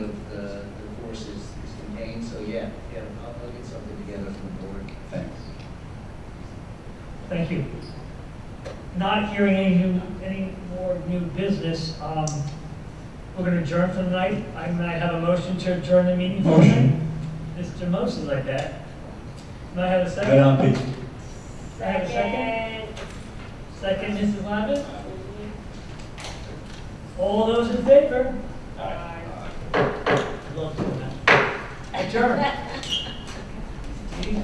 not hearing any new, any more new business, um, we're gonna adjourn for the night. I'm gonna have a motion to adjourn the meeting for the night. Mr. Moses like that. Can I have a Good second? on, Pete. Can I have a second? Second, Mrs. Lavin? All those in favor? Aye. Love doing that. Adjourn.